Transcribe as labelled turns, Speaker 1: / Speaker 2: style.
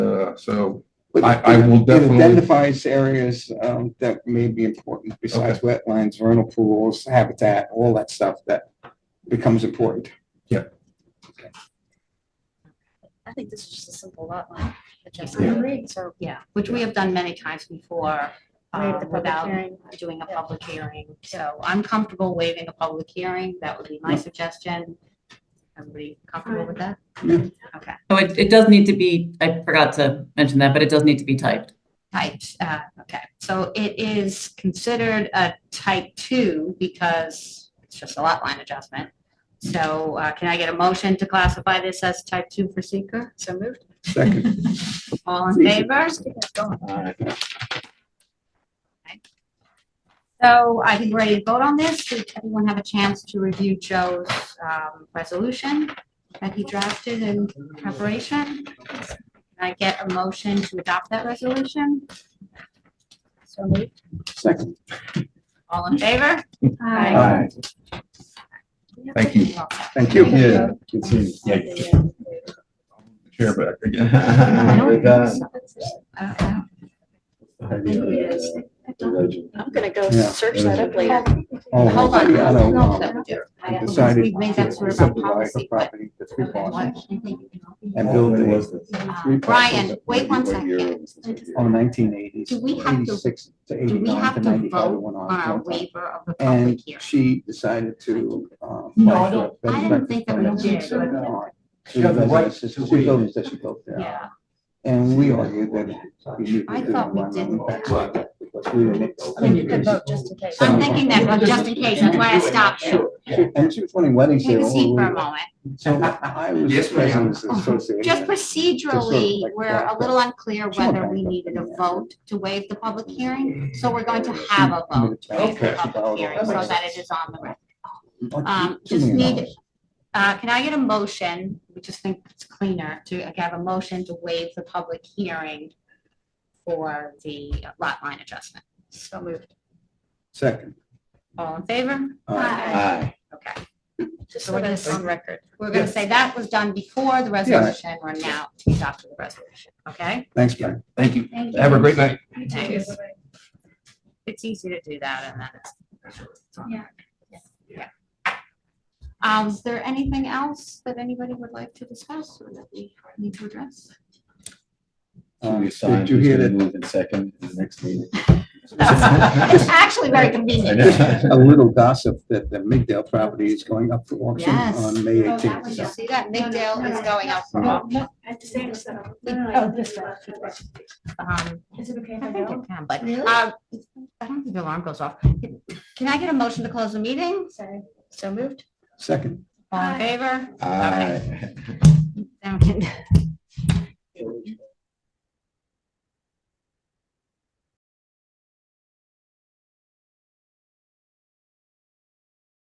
Speaker 1: Yeah, Uh, so
Speaker 2: But
Speaker 1: I- I will
Speaker 2: it
Speaker 1: definitely-
Speaker 2: Identifies areas um, that may be important besides wetlands, vernal pools, habitat, all that stuff that becomes important.
Speaker 3: I think this is just a simple lot line
Speaker 1: Yeah.
Speaker 3: adjustment. So
Speaker 4: Yeah, which we have done many times before
Speaker 3: we have
Speaker 4: um,
Speaker 3: the public
Speaker 4: without
Speaker 3: hearing.
Speaker 4: doing a
Speaker 3: Yeah.
Speaker 4: public hearing. So I'm comfortable waiving a public hearing. That would be my suggestion. Everybody comfortable with that?
Speaker 5: Oh, it, it does need to be, I forgot to mention that, but it does need to be typed.
Speaker 4: Type, uh, okay. So it is considered a type two because it's just a lot line adjustment. So uh, can I get a motion to classify this as type two for seeker? So moved.
Speaker 2: Second,
Speaker 4: All in favor? So I think we're ready to vote on this. Did everyone have a chance to review Joe's um, resolution that he drafted in preparation? Can I get a motion to adopt that resolution? So moved.
Speaker 2: second.
Speaker 4: All in favor?
Speaker 3: Aye.
Speaker 1: Thank you.
Speaker 4: You're welcome.
Speaker 2: Thank you.
Speaker 1: Yeah.
Speaker 3: Yeah.
Speaker 1: Yeah. Chair back again.
Speaker 4: I don't-
Speaker 6: Good, uh,
Speaker 4: I don't know.
Speaker 3: I'm gonna go
Speaker 2: Yeah.
Speaker 3: search that up later.
Speaker 2: Oh,
Speaker 4: uh, Hold on.
Speaker 2: I don't know.
Speaker 4: That we do. I
Speaker 2: I
Speaker 4: don't-
Speaker 2: Decided.
Speaker 4: We've made that
Speaker 2: to
Speaker 4: sort of a
Speaker 2: subdivide the
Speaker 4: policy, but.
Speaker 2: property into three parcels
Speaker 4: Uh,
Speaker 2: And build
Speaker 6: It
Speaker 2: a-
Speaker 6: was the-
Speaker 4: Brian, wait one second.
Speaker 2: on nineteen eighties,
Speaker 4: Do we have to-
Speaker 2: eighty-six to
Speaker 4: Do we
Speaker 2: eighty-nine
Speaker 4: have
Speaker 2: to
Speaker 4: to
Speaker 2: ninety-five.
Speaker 4: vote
Speaker 2: went on
Speaker 4: on our
Speaker 2: one time.
Speaker 4: waiver of the public
Speaker 2: And
Speaker 4: hearing?
Speaker 2: she decided to. uh, No,
Speaker 7: No, I don't-
Speaker 4: I didn't think that we did, but-
Speaker 2: She
Speaker 7: had the right to
Speaker 2: Two
Speaker 7: waive.
Speaker 2: buildings that she built there.
Speaker 4: Yeah.
Speaker 2: And we argued that. we
Speaker 4: I thought we didn't.
Speaker 3: I mean, you could vote just in case.
Speaker 4: I'm thinking that, but just in case, that's why I stopped you.
Speaker 2: And she was running weddings
Speaker 4: Take
Speaker 2: there.
Speaker 4: a
Speaker 2: all
Speaker 4: seat for a
Speaker 2: over.
Speaker 4: moment.
Speaker 2: So I was
Speaker 7: Yes,
Speaker 2: the
Speaker 7: ma'am.
Speaker 2: president of the association.
Speaker 4: Just
Speaker 2: Just sort of
Speaker 4: procedurally,
Speaker 2: like
Speaker 4: we're
Speaker 2: that,
Speaker 4: a little unclear
Speaker 2: Sure,
Speaker 4: whether we
Speaker 2: okay.
Speaker 4: needed a vote to waive the public hearing, so we're going to have a vote to waive the
Speaker 2: Okay.
Speaker 4: public hearing so that it is on the record. Um,
Speaker 2: Two
Speaker 4: just
Speaker 2: million
Speaker 4: need-
Speaker 2: dollars.
Speaker 4: Uh, can I get a motion, we just think it's cleaner, to I have a motion to waive the public hearing for the lot line adjustment? So moved.
Speaker 2: Second.
Speaker 4: All in favor?
Speaker 2: Uh,
Speaker 6: Aye.
Speaker 4: Okay,
Speaker 3: Just so that it's on record.
Speaker 4: we're gonna say that was done before the resolution, we're now to adopt the resolution, okay?
Speaker 2: Thanks, Brian.
Speaker 1: Thank you.
Speaker 4: Thank
Speaker 1: Have a great night.
Speaker 4: Thanks. It's easy to do that and then it's.
Speaker 3: Yeah.
Speaker 4: Yeah. Um, is there anything else that anybody would like to discuss or that we need to address?
Speaker 6: Should
Speaker 2: Um,
Speaker 6: we sign
Speaker 2: Did you
Speaker 6: who's
Speaker 2: hear
Speaker 6: gonna
Speaker 2: that?
Speaker 6: Move in second in the next meeting.
Speaker 4: It's actually very
Speaker 6: I
Speaker 4: convenient.
Speaker 6: know.
Speaker 2: A little gossip that the Middale property is going up for auction
Speaker 4: Yes.
Speaker 2: on May
Speaker 4: Oh, that one,
Speaker 2: eighteenth.
Speaker 4: you see that? Middale is going out for
Speaker 2: No,
Speaker 4: auction.
Speaker 3: Oh, this one.
Speaker 4: Um,
Speaker 3: Is it okay if
Speaker 4: I
Speaker 3: I
Speaker 4: think
Speaker 3: go?
Speaker 4: it can, but,
Speaker 3: Really?
Speaker 4: um, I don't think the alarm goes off. Can I get a motion to close the meeting?
Speaker 3: Sorry.
Speaker 4: So moved.
Speaker 2: Second.
Speaker 4: All in favor?
Speaker 6: Aye.
Speaker 4: Now we can-